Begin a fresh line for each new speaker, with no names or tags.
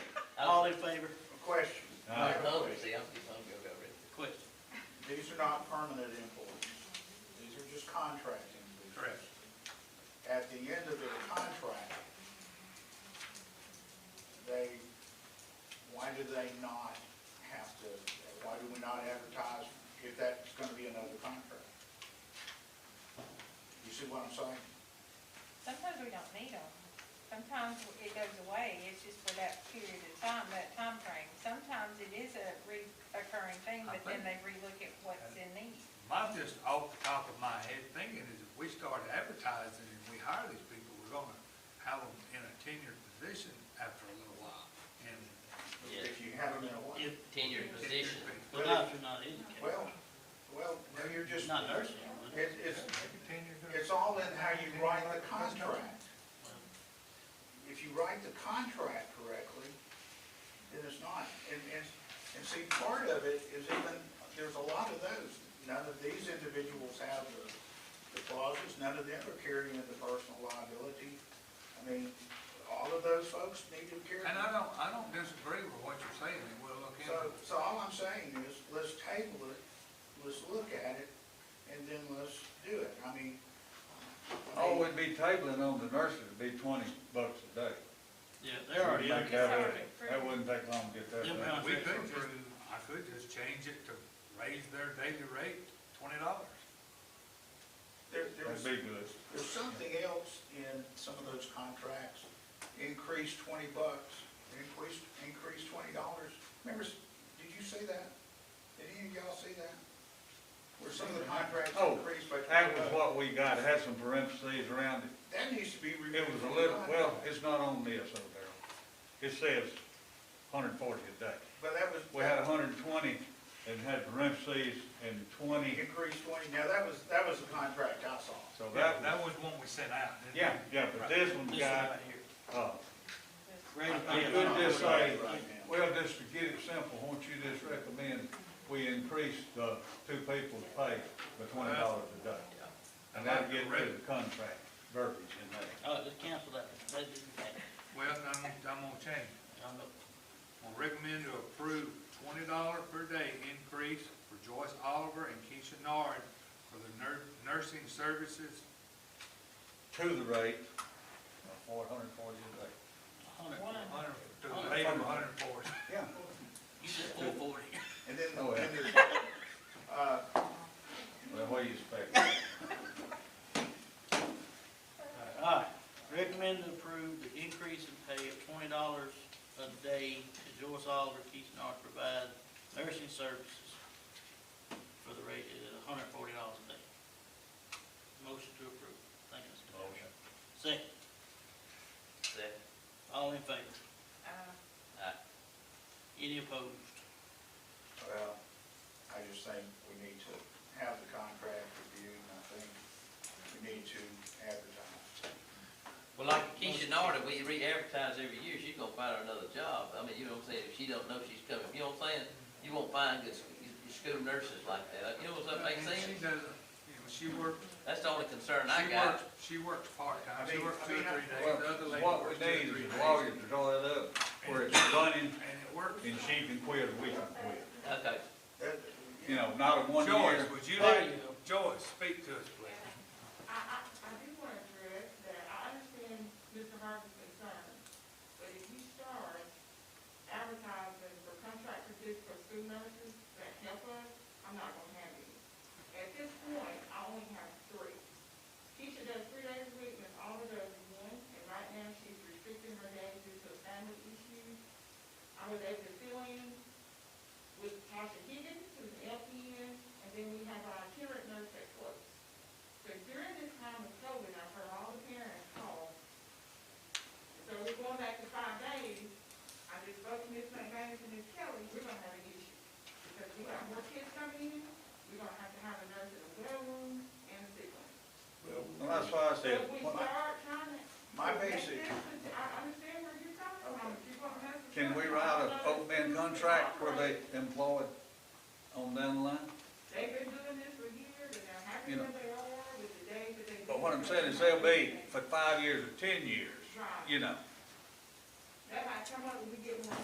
All in favor?
Question,
I
Aye.
voted, see, I'm, I'm good over it.
Question.
these are not permanent employees. These are just contract employees.
Correct.
At the end of their contract, they, why do they not have to, why do we not advertise if that's gonna be another contract? You see what I'm saying?
Sometimes we don't need them. Sometimes it goes away, it's just for that period of time, that time frame. Sometimes it is a recurring thing, but then they relook at what's in need.
My, just off the top of my head thinking is if we start advertising and we hire these people, we're gonna have them in a tenured position after a little while. And
Yeah.
If you have them in a while.
If,
Tenured position.
well, not if you're not educated.
Well, well, no, you're just,
Not nursing.
it, it's,
maybe tenured.
it's all in how you write the contract.
Well,
If you write the contract correctly, then it's not. And, and, and see, part of it is even, there's a lot of those. None of these individuals have the, the clauses, none of them are carrying the personal liability. I mean, all of those folks need to carry.
And I don't, I don't disagree with what you're saying, and we'll look into
So,
it.
so all I'm saying is, let's table it, let's look at it, and then let's do it. I mean. I
All
Oh,
mean,
Oh, we'd be tabling on the nurses would be twenty bucks a day.
Yeah, they're already,
Make
they're
It's
that up.
already approved.
That wouldn't take long to get that
Yeah,
done.
We
Contract
could just,
approved.
I could just change it to raise their daily rate twenty dollars.
There,
That'd
there's,
be good.
there's something else in some of those contracts, increase twenty bucks, increase, increase twenty dollars. Members, did you see that? Did any of y'all see that? Where some of the contracts
Oh,
increased by twenty
That was
bucks?
what we got, It had some parentheses around it.
That needs to be removed.
It was a little, well, it's not on this over there. It says hundred and forty a day.
But that was.
We had hundred and twenty and had parentheses and twenty,
Increase twenty, now that was, that was the contract I saw.
so that
That, that
was,
was one we sent out. didn't we?
yeah, yeah, but this one
this one
got,
right here.
uh,
Rate of
I
pay.
could just say,
Right now.
well, just to get it simple, won't you just recommend we increase the two people's pay by twenty dollars a day? And that'll get rid of the contract verbiage in there.
Oh, just cancel that. That didn't matter.
Well, I'm, I'm gonna change it.
I'm not-
Will recommend to approve twenty dollar per day increase for Joyce Oliver and Keisha Nard for the nur- nursing services.
To the rate of four hundred and forty a day.
a hundred.
One.
Hundred, to the rate of hundred and forty.
Yeah.
You said four forty.
And then,
Oh, yeah.
then there's, uh,
Well, what do you expect?
All right, recommend to approve the increase in pay of twenty dollars a day to Joyce Oliver, Keith Nard provide nursing services for the rate of hundred and forty dollars a day. Motion to approve. Thank you, Mr. Motion. Second,
Second.
all in favor?
Uh,
Aye.
Any opposed?
Well, I just think we need to have the contract reviewed, and I think we need to advertise.
Well, like Keisha Narda, we re-advertise every year, she's gonna find her another job. I mean, you know what I'm saying, if she don't know she's coming, you know what I'm saying? You won't find good, s- good school nurses like that, you know what I'm
And She
saying?
doesn't, you know, she worked,
That's the only concern I
she
got.
worked, she worked
I
part-time, she
mean-
worked
I
two or
mean, I-
three days, the other
Well,
lady
What
worked
we
two or
need
three
is
days.
a lawyer to draw that up where it's running
And it worked.
and she can quit or we can quit.
Okay,
That-
You know, not a one year.
Joyce, would you
There
like,
you go.
Joyce, speak to us, please.
I, I, I do want to address that I understand Mr. Harvey's concern, but if you start advertising for contract positions for school nurses that help us, I'm not gonna have any. At this point, I only have three. Keisha does three days a week, Miss Oliver does one, and right now she's restricting her days due to family issues. I was able to fill in with Tasha Higgins, who's an LPN, and then we have our current nurse that works. But during this time of COVID, I've heard all the parents call. So we're going back to five days. I just spoke to Ms. McManus and Ms. Kelly, we're gonna have an issue. Because we got more kids coming in, we're gonna have to have a nurse in the well room and a sick room.
Well, that's why I
So
said,
if we
well,
start trying to.
My basic,
I understand where you're coming from. If you're gonna have to
can we
try to
write a
follow
open band contract where they employed on down the line?
They've been doing this for years, and they're happy
You know.
where they are with the days that they.
But what I'm saying is they'll be for five years or ten years,
Right.
you know.
That might come up when we get more